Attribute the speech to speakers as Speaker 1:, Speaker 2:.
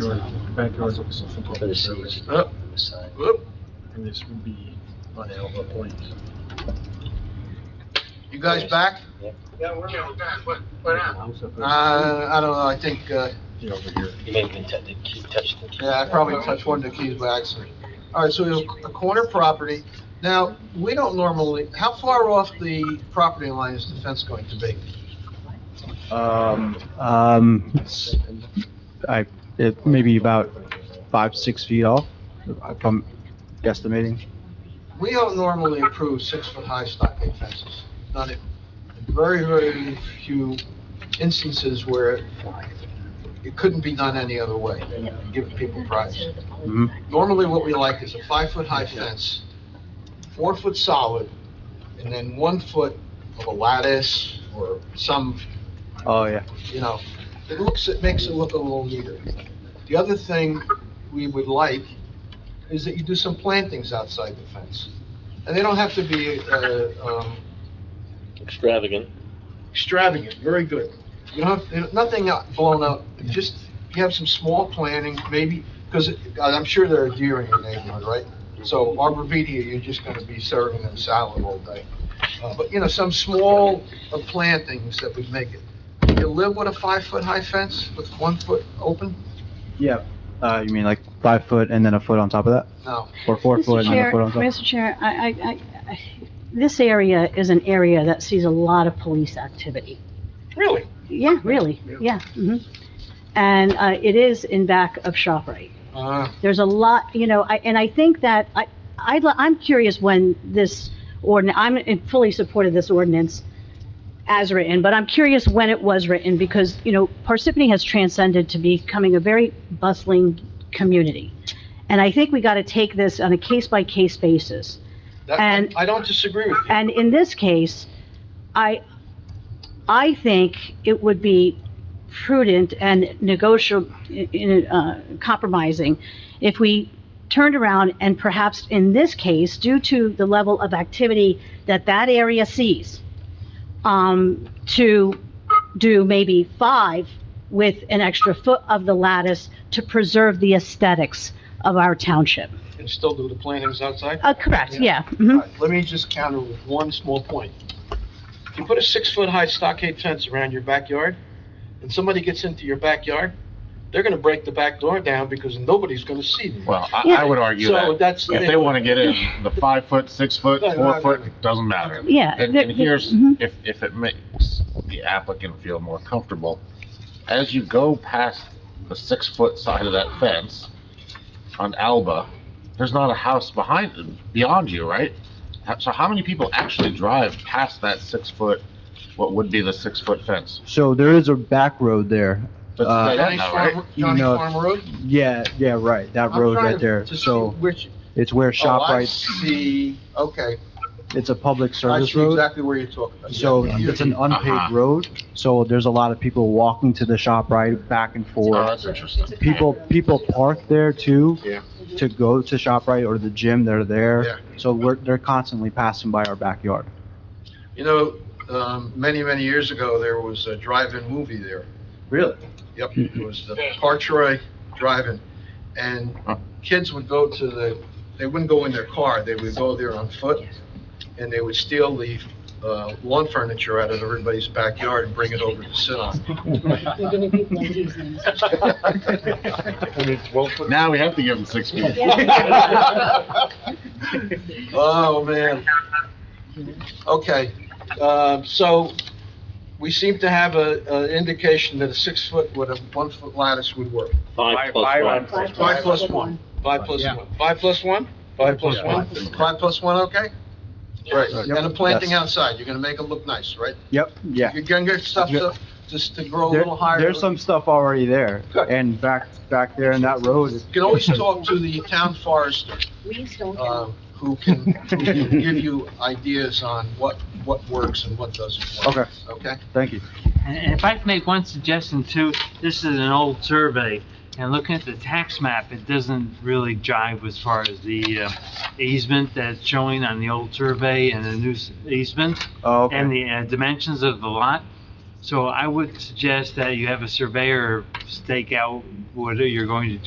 Speaker 1: the backyard
Speaker 2: For the seats.
Speaker 1: up,
Speaker 2: Side.
Speaker 3: Whoop,
Speaker 1: and this would be on Alva Point.
Speaker 3: you guys back?
Speaker 4: Yeah, we're. Yeah, we're back, what, what happened?
Speaker 3: Uh, I don't know, I think, uh,
Speaker 1: Yeah, over here.
Speaker 2: You may have been touching, keep touching. the keys.
Speaker 3: yeah, I probably touched one of the keys by accident. All right, so we have a corner property. Now, we don't normally, how far off the property line is the fence going to be?
Speaker 5: Um, um, it's- I, it may be about five, six feet off, if I'm guesstimating.
Speaker 3: We don't normally approve six-foot-high stockade fences, not in, very, very few instances where it couldn't be done any other way, giving people privacy.
Speaker 5: Mhm.
Speaker 3: Normally, what we like is a five-foot-high fence, four-foot solid, and then one foot of a lattice or some,
Speaker 5: Oh, yeah.
Speaker 3: you know, it looks, it makes it look a little neater. The other thing we would like is that you do some plantings outside the fence. And they don't have to be, uh, um,
Speaker 2: Extravagant.
Speaker 3: extravagant, very good. You don't have, you know, nothing out- blown up, just, you have some small planting, maybe, because I'm sure there are deer in your neighborhood, right? So arborvitae, you're just gonna be serving them salad all day. Uh, But, you know, some small uh, plantings that would make it. You live with a five-foot-high fence with one foot open?
Speaker 5: Yeah. Uh, you mean like five foot and then a foot on top of that?
Speaker 3: No.
Speaker 5: Or four
Speaker 6: Mr.
Speaker 5: foot and then a
Speaker 6: Chair-
Speaker 5: foot on top?
Speaker 6: Mr. Chair, I, I, I- I, this area is an area that sees a lot of police activity.
Speaker 3: Really?
Speaker 6: Yeah, really, yeah. mhm. And uh, it is in back of ShopRite.
Speaker 3: Uh,
Speaker 6: There's a lot, you know, I, and I think that, I, I, I'm curious when this ordin, I'm in fully support of this ordinance as written, but I'm curious when it was written, because, you know, Parsippany has transcended to becoming a very bustling community. And I think we gotta take this on a case-by-case basis.
Speaker 3: that,
Speaker 6: And-
Speaker 3: I don't disagree with you.
Speaker 6: And in this case, I, I think it would be prudent and negotiable, uh, compromising if we turned around and perhaps in this case, due to the level of activity that that area sees, um, to do maybe five with an extra foot of the lattice to preserve the aesthetics of our township.
Speaker 3: And still do the plantings outside?
Speaker 6: Uh, correct, yeah.
Speaker 3: All
Speaker 6: mhm.
Speaker 3: right, Let me just counter with one small point. If you put a six-foot-high stockade fence around your backyard, and somebody gets into your backyard, they're gonna break the back door down because nobody's gonna see them.
Speaker 7: Well, I,
Speaker 6: Yeah.
Speaker 7: I would argue
Speaker 3: So
Speaker 7: that
Speaker 3: that's,
Speaker 7: if they
Speaker 3: the-
Speaker 7: want to get in, the five foot, six foot,
Speaker 3: No, no, no,
Speaker 7: four
Speaker 3: no.
Speaker 7: foot, doesn't matter.
Speaker 6: Yeah.
Speaker 7: And,
Speaker 6: the-
Speaker 7: and
Speaker 6: the-
Speaker 7: here's,
Speaker 6: mhm.
Speaker 7: if, if it makes the applicant feel more comfortable, as you go past the six foot side of that fence on Alba, there's not a house behind, beyond you, right? How- So how many people actually drive past that six foot, what would be the six foot fence?
Speaker 5: So there is a back road there.
Speaker 7: That's
Speaker 5: Uh,
Speaker 7: dead
Speaker 3: Johnny
Speaker 7: end now, right?
Speaker 3: Farm, Johnny
Speaker 5: No.
Speaker 3: Farm Road?
Speaker 5: Yeah, yeah, right. That
Speaker 3: I'm
Speaker 5: road
Speaker 3: trying
Speaker 5: right
Speaker 3: to-
Speaker 5: there.
Speaker 3: to see
Speaker 5: So
Speaker 3: Which,
Speaker 5: it's where
Speaker 3: oh, I
Speaker 5: ShopRite,
Speaker 3: see, okay,
Speaker 5: it's a public
Speaker 3: I
Speaker 5: service
Speaker 3: see
Speaker 5: road.
Speaker 3: exactly where you're talking about.
Speaker 5: So
Speaker 3: Yeah, you're-
Speaker 5: it's an
Speaker 7: Uh-huh.
Speaker 5: unpaved road, so there's a lot of people walking to the shop right back and
Speaker 7: Oh,
Speaker 5: forth.
Speaker 7: that's interesting.
Speaker 5: People, people park there too.
Speaker 7: Yeah.
Speaker 5: To go to shop right or the gym, they're
Speaker 3: Yeah.
Speaker 5: there. So we're, they're constantly passing by our backyard.
Speaker 3: You know, um, many, many years ago, there was a drive-in movie there.
Speaker 5: Really?
Speaker 3: Yep, it was the Partroy Drive-In, and kids would go to the, they wouldn't go in their car, they would go there on foot, and they would steal the uh, lawn furniture out of everybody's backyard and bring it over to sit on.
Speaker 7: Now we have to give them six feet.
Speaker 3: Oh, man. Okay, um, so we seem to have a, an indication that a six-foot with a one-foot lattice would work.
Speaker 2: Five plus one.
Speaker 3: Five plus one. Five plus one. Five plus one? Five plus one? Five plus one, okay? Right, and a planting
Speaker 5: Yes.
Speaker 3: outside, you're gonna make it look nice, right?
Speaker 5: Yep, yeah.
Speaker 3: You're gonna get stuff to, just to grow a
Speaker 5: There-
Speaker 3: little higher.
Speaker 5: There's some stuff already there.
Speaker 3: Good.
Speaker 5: And back, back there in that road,
Speaker 3: You can always talk to the town forester, um, who can, who can give you ideas on what, what works and what doesn't work.
Speaker 5: Okay.
Speaker 3: Okay?
Speaker 5: thank you.
Speaker 8: And and if I can make one suggestion too, this is an old survey, and looking at the tax map, it doesn't really jive as far as the uh, easement that's showing on the old survey and the new s- easement,
Speaker 5: Oh, okay.
Speaker 8: and the uh, dimensions of the lot. So I would suggest that you have a surveyor stake out what you're going to do.